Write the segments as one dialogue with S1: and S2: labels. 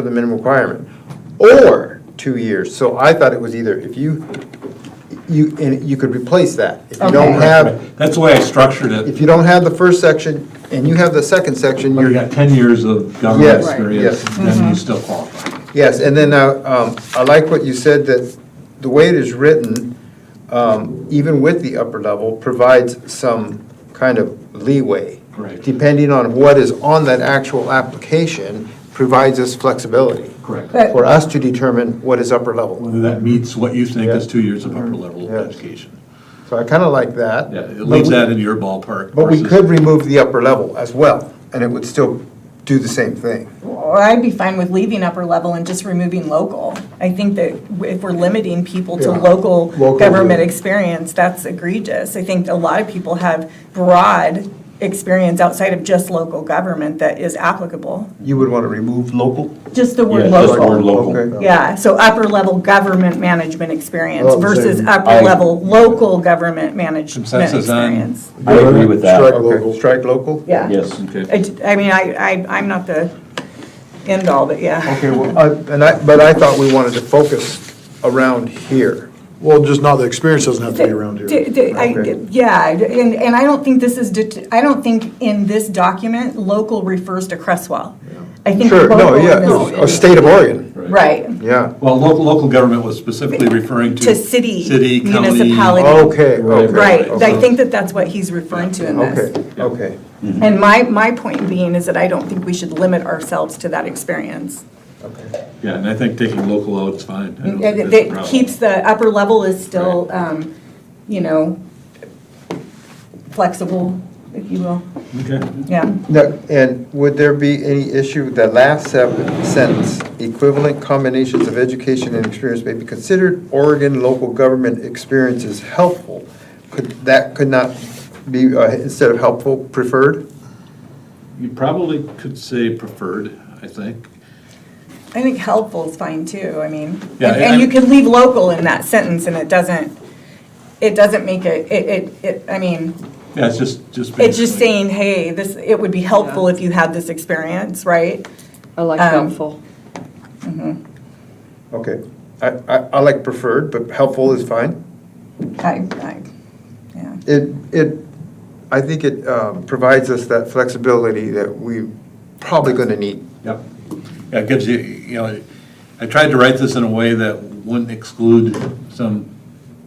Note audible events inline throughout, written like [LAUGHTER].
S1: for the minimum requirement, or two years. So I thought it was either, if you, you, and you could replace that. If you don't
S2: Okay.
S1: have,
S2: That's the way I structured it.
S1: if you don't have the first section and you have the second section,
S2: You
S1: you're,
S2: got 10 years of government
S1: Yes,
S2: experience,
S1: yes.
S2: then
S3: Mm-hmm.
S2: you still qualify.
S1: yes, and then, uh, um, I like what you said, that the way it is written, um, even with the upper level, provides some kind of leeway.
S2: Right.
S1: Depending on what is on that actual application, provides us flexibility.
S2: Correct.
S3: But-
S1: For us to determine what is upper level.
S2: Whether that meets what you think is two years of upper level
S1: Mm-hmm. Yes.
S2: of education.
S1: So I kind of like that.
S2: Yeah, it
S1: But
S2: leaves
S1: we-
S2: that in your ballpark.
S1: But we
S2: versus-
S1: could remove the upper level as well, and it would still do the same thing.
S3: Or I'd be fine with leaving upper level and just removing local. I think that if we're limiting people to
S1: Yeah.
S3: local
S1: Local,
S3: government
S1: yeah.
S3: experience, that's egregious. I think a lot of people have broad experience outside of just local government that is applicable.
S1: You would want to remove local?
S3: Just the
S4: Yeah,
S3: word
S4: just the word
S3: local.
S4: local.
S1: Okay.
S3: Yeah, so upper level government management experience
S1: Oh, so
S3: versus
S4: I-
S3: upper level local government management
S2: Consensus on-
S3: experience.
S4: I agree with that.
S1: Strike local. Strike local?
S3: Yeah.
S4: Yes.
S3: I, j- I mean, I, I, I'm not the end all, but yeah.
S1: Okay, well, I- and I, but I thought we wanted to focus around here.
S5: Well, just not, the experience doesn't have to be around
S3: D-
S5: here.
S3: d- I-
S1: Okay.
S3: Yeah, and, and I don't think this is, det- I don't think in this document, local refers to Crestwell. I think
S1: Sure, no,
S3: local in
S1: yeah,
S3: this-
S1: no, a state of Oregon,
S3: Right,
S1: yeah.
S2: Well, local, local government was specifically referring to.
S3: To city,
S2: City, county.
S3: municipality.
S1: Okay, okay.
S3: right.
S1: okay.
S3: I think that that's what he's referring to in this.
S1: Okay, okay.
S3: And my, my point being is that I don't think we should limit ourselves to that experience.
S2: Yeah, and I think taking local out is fine. I don't think
S3: It
S2: that's a
S3: it
S2: problem.
S3: keeps the, upper level is still, um, you know, flexible, if you will,
S2: Okay.
S3: yeah.
S1: Now, and would there be any issue with that last sep- sentence? Equivalent combinations of education and experience may be considered. Oregon local government experience is helpful. Could, that could not be, uh, instead of helpful, preferred?
S2: You probably could say preferred, I think.
S3: I think helpful is fine too, I mean, and-
S2: Yeah, I-
S3: and you can leave local in that sentence and it doesn't, it doesn't make it, it, it, it. I mean,
S2: Yeah, it's just, just.
S3: it's just
S2: basically-
S3: saying, hey, this, it would be helpful if you had this experience, right?
S6: I like
S3: Um,
S6: helpful.
S1: Okay. I, I, I like preferred, but helpful is fine.
S3: I, I, yeah.
S1: It, it, I think it um, provides us that flexibility that we probably going to need.
S2: Yep. Yeah, it gives you, you know, I tried to write this in a way that wouldn't exclude some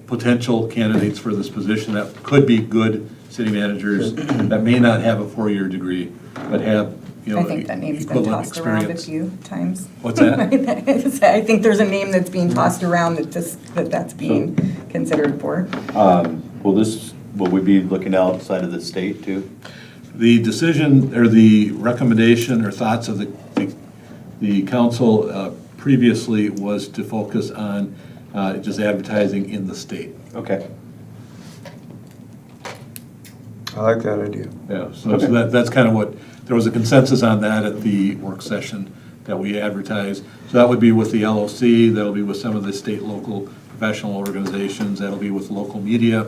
S2: potential candidates for this position that could be good city managers that may not have a four-year degree, but have, you know,
S3: I think that name's been
S2: equivalent
S3: tossed around a
S2: experience.
S3: few times.
S2: What's that?
S3: [LAUGHS]
S2: Mm-hmm.
S3: I think there's a name that's being tossed around that this, that that's being considered for.
S4: Um, Will this, will we be looking outside of the state too?
S2: The decision, or the recommendation or thoughts of the, the- the council uh, previously was to focus on uh, just advertising in the state.
S4: Okay.
S1: I like that idea.
S2: Yeah, so so that, that's kind of what, there was a consensus on that at the work session that we advertised. So that would be with the LOC, that'll be with some of the state, local professional organizations, that'll be with local media,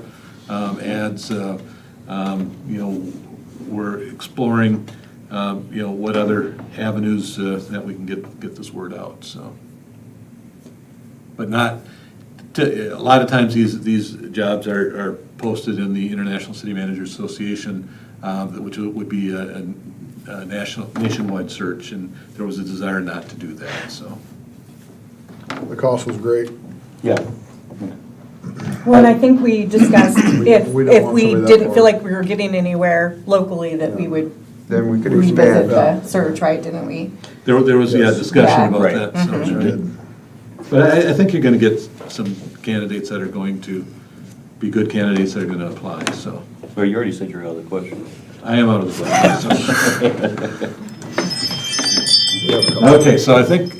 S2: um, ads, uh, um, you know, we're exploring, um, you know, what other avenues uh, that we can get, get this word out, so. But not, to- a lot of times, these, these jobs are, are posted in the International City Managers Association, um, which would be a, a- a national, nationwide search, and there was a desire not to do that, so.
S5: The cost was great.
S4: Yeah.
S3: Well, and I think we discussed if,
S5: we don't
S3: if
S5: want
S3: we
S5: somebody that
S3: didn't feel
S5: far.
S3: like we were getting anywhere locally, that we would
S1: Then we could
S3: revisit
S1: expand.
S3: the search, right, didn't we?
S2: There, there was, yeah, discussion about
S4: Right.
S2: that. so, right. But I, I think you're gonna get some candidates that are going to be good candidates that are gonna apply, so.
S4: Well, you already said your other question.
S2: I am out of the question, so.
S5: Yeah, the cost.
S2: Okay, so I think,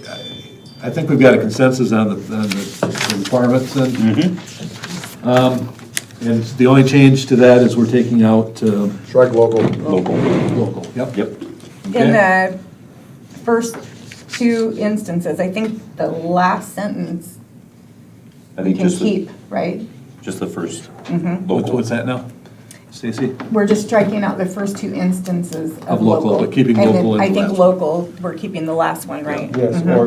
S2: I think we've got a consensus on the, on the requirements then. Um, And the only change to that is we're taking out uh,
S5: Strike local.
S4: [LAUGHS] Local.
S2: local, yep.
S4: Yep.
S3: In
S2: Okay.
S3: the first two instances, I think the last sentence
S4: I
S3: we
S4: think
S3: can
S4: just, the-
S3: keep, Mm-hmm. right?
S4: just the first.
S2: What's
S4: Local.
S2: what's that now? Stacy?
S3: We're just striking out the first two instances
S2: Of
S3: of
S2: local,
S3: local.
S2: but keeping
S3: And
S2: local
S3: then
S2: in
S3: I
S2: the
S3: think
S2: last
S3: local, we're keeping the last one, right?
S1: Yes,
S3: Mhm.
S1: or